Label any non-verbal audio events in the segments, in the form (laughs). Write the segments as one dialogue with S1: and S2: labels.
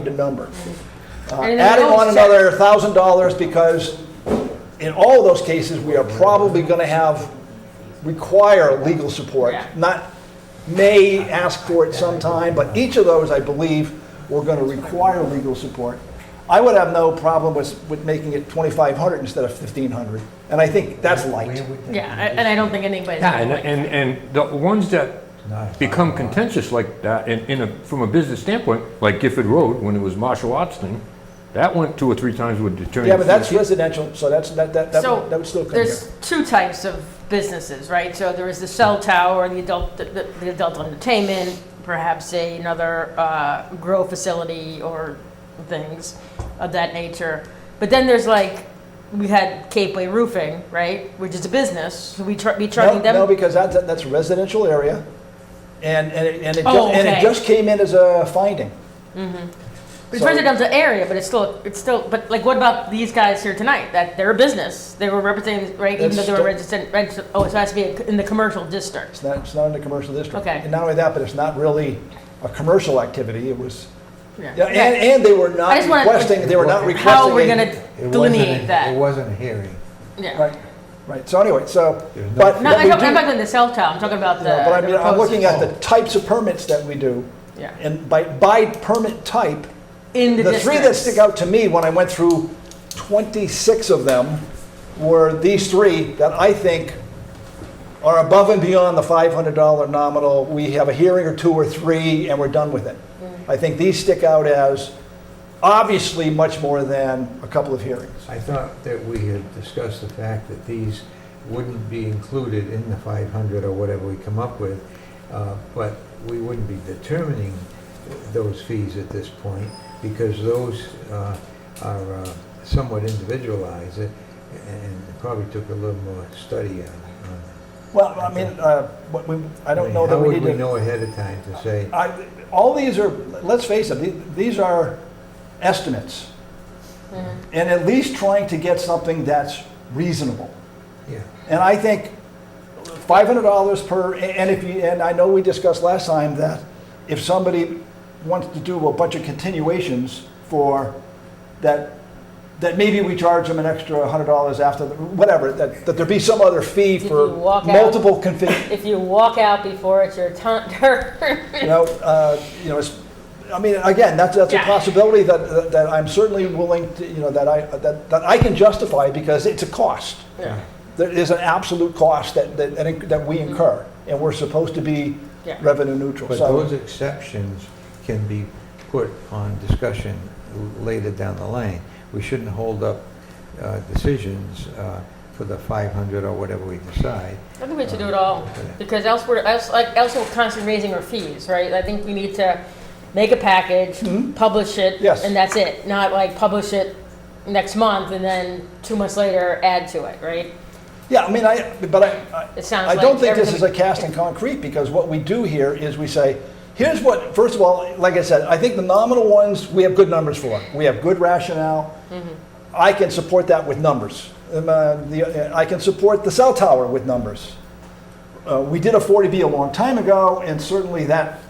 S1: find a number. Uh,
S2: And then
S1: Adding on
S2: always
S1: another thousand dollars because in all those cases, we are probably going to have, require legal support.
S2: Yeah.
S1: Not may ask for it sometime, but each of those, I believe, we're going to require legal support. I would have no problem with, with making it twenty-five hundred instead of fifteen hundred. And I think that's light.
S2: Yeah, I- and I don't think anybody's.
S3: Yeah, and,
S2: gonna like-
S3: and, and the ones that become contentious like that, in, in a, from a business standpoint, like Gifford Road, when it was martial arts thing, that went two or three times with the attorney.
S1: Yeah, but that's residential, so that's, that, that, that
S2: So
S1: would that would still come here.
S2: there's two types of businesses, right? So there is the cell tower, the adult, the, the adult entertainment, perhaps a, another uh, grow facility or things of that nature. But then there's like we had Capeway Roofing, right, which is a business. So we tr- we charging
S1: No,
S2: them.
S1: No, because that's, that's a residential area, and, and it, and it
S2: Oh,
S1: ju- and it
S2: okay.
S1: just came in as a finding.
S2: It's
S1: So-
S2: residential area, but it's still, it's still, but like, what about these guys here tonight? That they're a business, they were representing, right, even though
S1: That's
S2: they were
S1: still-
S2: registered, registered, oh, so it has to be in the commercial district.
S1: It's not, it's not in the commercial district.
S2: Okay.
S1: And not only that, but it's not really a commercial activity, it was, yeah, and,
S2: Okay.
S1: and they were not
S2: I just wanna-
S1: requesting, they were not requesting.
S2: How are we
S1: a-
S2: gonna delineate
S4: It
S2: that?
S4: wasn't a hearing.
S2: Yeah.
S1: Right, right, so anyway, so,
S4: There's no-
S1: but.
S2: No,
S1: what
S2: I'm
S1: we
S2: talking-
S1: do-
S2: I'm talking about the cell tower, I'm talking about the.
S1: you know, But I
S2: the
S1: mean, I'm
S2: proposed-
S1: looking at the types of permits that we do,
S2: Yeah,
S1: and by, by permit type,
S2: in the
S1: The
S2: districts.
S1: three that stick out to me when I went through 26 of them were these three that I think are above and beyond the $500 nominal. We have a hearing or two or three and we're done with it. I think these stick out as obviously much more than a couple of hearings.
S4: I thought that we had discussed the fact that these wouldn't be included in the 500 or whatever we come up with, uh, but we wouldn't be determining those fees at this point because those uh, are uh, somewhat individualized and and probably took a little more study on. on it.
S1: Well, I mean, uh, what we- I don't know that
S4: How
S1: we
S4: would
S1: need
S4: we
S1: to.
S4: know ahead of time to say?
S1: I- All these are, let's face it, the- these are estimates. And at least trying to get something that's reasonable.
S4: Yeah,
S1: And I think five hundred dollars per, and if you, and I know we discussed last time that if somebody wants to do a bunch of continuations for that, that maybe we charge them an extra hundred dollars after, the- whatever, that, that there be some other fee
S2: Did
S1: for
S2: you walk out?
S1: multiple config,
S2: If you walk out before it's your (laughs) turn,
S1: you
S2: (laughs)
S1: know, uh, you know, it's, I mean, again, that's, that's a
S2: Yeah.
S1: possibility that, that- that I'm certainly willing to, you know, that I, that, that I can justify because it's a cost.
S2: yeah,
S1: There is an absolute cost that, that, that inc- that we
S2: Mm-hmm.
S1: incur, and we're supposed to be
S2: yeah.
S1: revenue neutral.
S4: But
S1: So,
S4: those exceptions can be put on discussion later down the line. We shouldn't hold up uh, decisions uh, for the 500 or whatever we decide.
S2: I think we should do it all, because else we're, else, like, else we're constantly raising our fees, right? I think we need to make a package, publish it,
S1: Mm-hmm. Yes.
S2: and that's it. Not like publish it next month and then two months later add to it, right?
S1: yeah, I mean, I, but I,
S2: It
S1: I
S2: sounds
S1: I
S2: like
S1: don't think this is a
S2: everything-
S1: cast in concrete, because what we do here is we say, here's what, first of all, like I said, I think the nominal ones, we have good numbers for. We have good rationale.
S2: Mm-hmm.
S1: I can support that with numbers. Um, uh, the- I can support the cell tower with numbers. Uh, We did a 40B a long time ago, and certainly that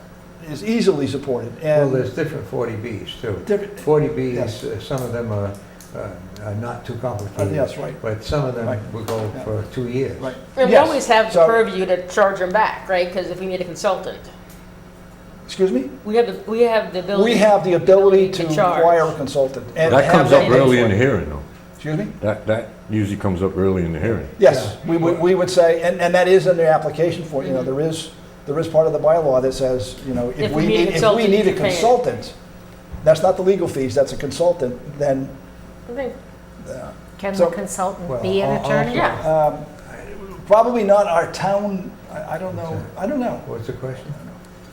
S1: is easily supported.
S4: Well,
S1: And
S4: there's different 40Bs too.
S1: Different-
S4: 40Bs,
S1: Yes.
S4: uh, some of them are uh, are not too complicated.
S1: Yes, right.
S4: But some of them
S1: Right.
S4: will go
S1: Yeah.
S4: for two years.
S1: Right.
S2: And we
S1: Yes.
S2: always have the
S1: So-
S2: purview to charge them back, right? Because if we need a consultant,
S1: Excuse me?
S2: we have, the we have the ability.
S1: We have the ability to
S2: To charge.
S1: require a consultant. and
S3: That
S1: have
S3: comes
S1: them
S3: up
S1: pay
S3: early
S1: for
S3: in the
S1: it.
S3: hearing, though.
S1: Excuse me?
S3: That, that usually comes up early in the hearing.
S1: Yes, we would, we would say, and, and that is in the application for, you know, there is, there is part of the bylaw that says, you know, if
S2: If
S1: we
S2: we need a
S1: need, if we
S2: consultant,
S1: need a
S2: you pay it.
S1: consultant, that's not the legal fees, that's a consultant, then,
S2: I think-
S5: Can
S1: So-
S5: the consultant
S4: Well,
S5: be an
S4: al-
S5: attorney?
S2: Yeah.
S1: um, probably not our town, I, I don't know, I don't know.
S4: What's the question?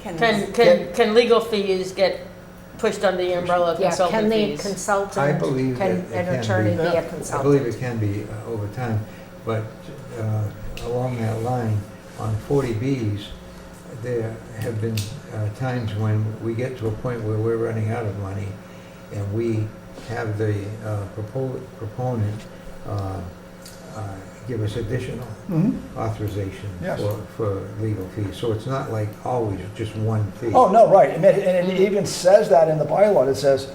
S2: Can, can, can legal fees get pushed under the umbrella of
S5: Yeah, can
S2: consultant
S5: the
S2: fees?
S4: I
S5: consultant,
S4: believe
S5: can
S4: that it can
S5: an attorney
S4: be.
S5: be a
S4: I believe
S5: consultant?
S4: it can be uh, over time, but uh, along that line, on 40Bs, there have been uh, times when we get to a point where we're running out of money, and we have the uh, propo- proponent uh, uh, give us additional
S1: Mhm.
S4: authorization
S1: Yes.
S4: for, for legal fees. So it's not like always just one fee.
S1: Oh, no, right. And it and it even says that in the bylaw. It says,